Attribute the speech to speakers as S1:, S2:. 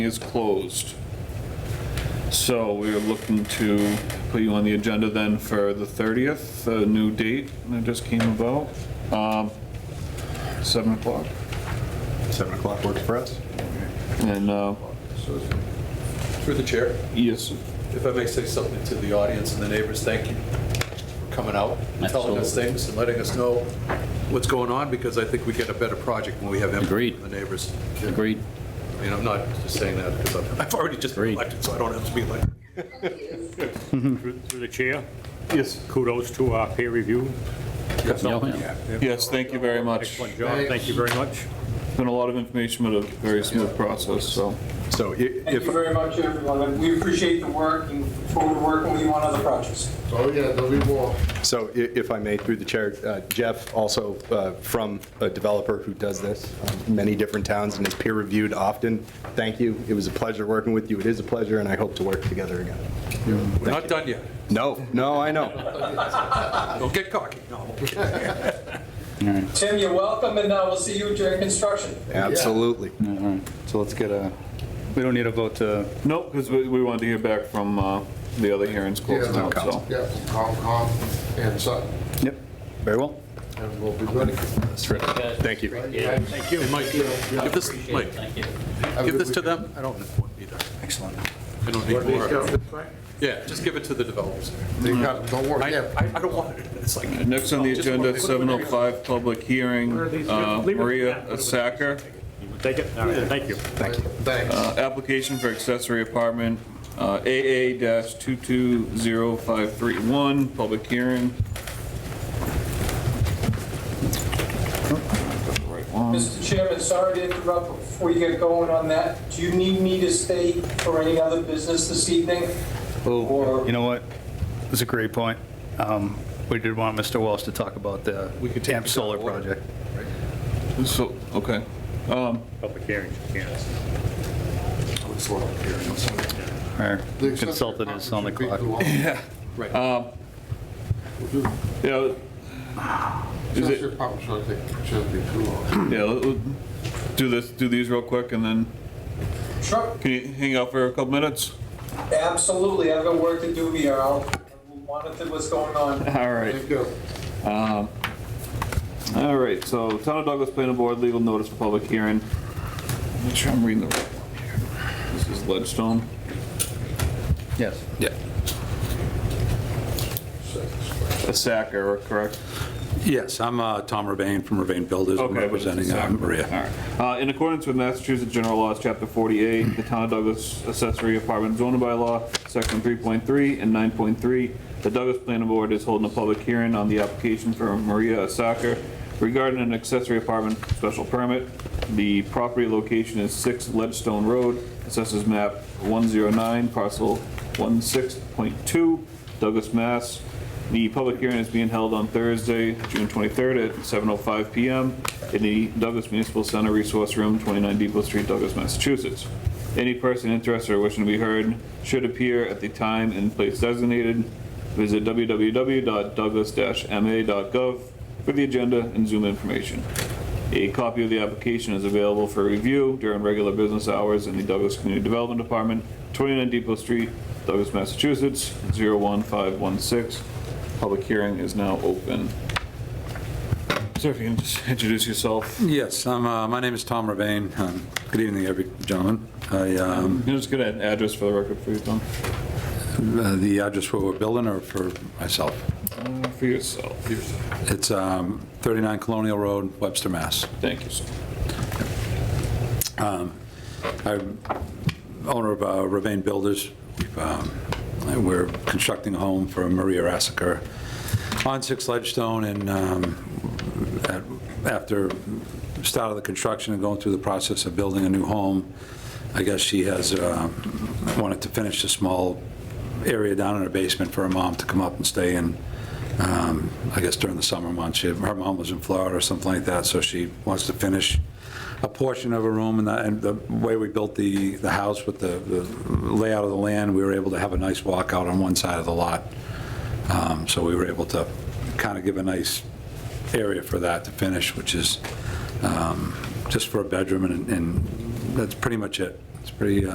S1: is closed. So we are looking to put you on the agenda then for the 30th, a new date that just came about, um, 7 o'clock.
S2: 7 o'clock works for us?
S1: And, uh,
S3: So, Through the chair,
S1: yes,
S3: if I may say something to the audience and the neighbors, thank you for coming out, and telling us
S4: Absolutely.
S3: things and letting us know what's going on, because I think we get a better project when we have input
S4: Agreed.
S3: from the neighbors.
S4: Agreed.
S3: I mean, I'm not just saying that because I've I've already just been
S4: Agreed.
S3: elected, so I don't have to be elected.
S5: Through through the chair,
S1: yes,
S5: kudos to our peer review consultant.
S4: Yeah,
S1: yes, thank you very much.
S5: Excellent job, thank you very much.
S1: It's Been a lot of information, but a very smooth process, so.
S2: So i-
S6: Thank
S2: if,
S6: you very much, everyone. We appreciate the work and look forward to working with you on other projects.
S7: Oh, yeah, there'll be more.
S2: so i- if I may, through the chair, uh, Jeff, also uh, from a developer who does this, um, many different towns, and is peer-reviewed often, thank you. It was a pleasure working with you. It is a pleasure, and I hope to work together again.
S3: We're not done yet.
S2: No, no, I know.
S3: Don't get cocky. No.
S6: Tim, you're welcome, and uh, we'll see you during construction.
S2: Absolutely.
S4: all right. So let's get a, we don't need a vote to,
S1: No, because we we wanted to hear back from uh, the other hearings closed
S7: Yeah.
S1: out, so.
S7: Yeah, from Concom and Sutton,
S4: yep, very well.
S7: and we'll be ready.
S2: Thank you.
S3: Thank you. Mike, give this, Mike, give this to them. I don't need one either.
S4: Excellent.
S3: I don't need more. Yeah, just give it to the developers.
S7: They got, don't
S3: I,
S7: worry, yeah.
S3: I I don't want it. It's like.
S1: Next on the
S3: Just
S1: agenda,
S3: one-
S1: 7:05 public hearing, uh, Maria Sacker.
S5: Take it, all right, thank you.
S7: Thanks.
S1: Uh, application for accessory apartment, uh, AA-220531, public hearing. Right one.
S6: Mr. Chairman, sorry to interrupt but before you get going on that. Do you need me to stay for any other business this evening?
S4: Oh,
S6: Or-
S4: you know what? That's a great point. Um, We did want Mr. Walsh to talk about the AMP solar project.
S1: So, okay. Um,
S5: Public hearings, yes.
S4: Our
S7: The accessory
S4: consultant is on the clock.
S7: apartment should be-
S1: yeah,
S7: the
S1: Is it-
S7: Accessory apartment should, I think, should be too long.
S1: yeah, let- let- do this, do these real quick and then,
S6: Sure,
S1: can you hang out for a couple minutes?
S6: absolutely. I've got work to do here. I'll we'll monitor what's going on.
S1: All right.
S7: Thank you.
S1: All right, so Town of Douglas Planning Board, legal notice for public hearing. Make sure I'm reading the right one here. This is Ledstone.
S4: Yes.
S2: Yeah.
S1: A sack error, correct?
S8: Yes, I'm uh, Tom Ravane from Ravane Builders, I'm
S1: Okay, but it's
S8: representing uh,
S1: exactly-
S8: Maria.
S1: All right. Uh, In accordance with Massachusetts General Laws, Chapter 48, the Town of Douglas accessory apartment zoning bylaw, Section 3.3 and 9.3, the Douglas Planning Board is holding a public hearing on the application for Maria Asaker regarding an accessory apartment special permit. The property location is 6 Ledstone Road, assesses map 109, parcel 16.2, Douglas, Mass. The public hearing is being held on Thursday, June 23rd at 7:05 PM in the Douglas Municipal Center Resource Room, 29 Depot Street, Douglas, Massachusetts. Any person interested or wishing to be heard should appear at the time and place designated. Visit www.douglas-ma.gov for the agenda and Zoom information. A copy of the application is available for review during regular business hours in the Douglas Community Development Department, 29 Depot Street, Douglas, Massachusetts, 01516. Public hearing is now open. Sir, if you can just introduce yourself, you
S8: Yes, I'm, uh, my name is Tom Ravane. Um, Good evening, every gentleman. I, um,
S1: can just get an address for the record for you, Tom,
S8: uh, The address for we're building or for myself?
S1: Uh, for yourself.
S8: It's um, 39 Colonial Road, Webster, Mass.
S1: Thank you, sir.
S8: I'm owner of uh, Ravane Builders. We've, um, We're constructing a home for Maria Assaker on Six Ledgestone, and um, at- after start of the construction and going through the process of building a new home, I guess she has uh, wanted to finish a small area down in her basement for her mom to come up and stay in. Um, I guess during the summer months, she- her mom was in Florida or something like that, so she wants to finish a portion of a room, and that- and the way we built the, the house with the the layout of the land, we were able to have a nice walkout on one side of the lot. Um, So we were able to kind of give a nice area for that to finish, which is um, just for a bedroom, and- and that's pretty much it. It's pretty, uh,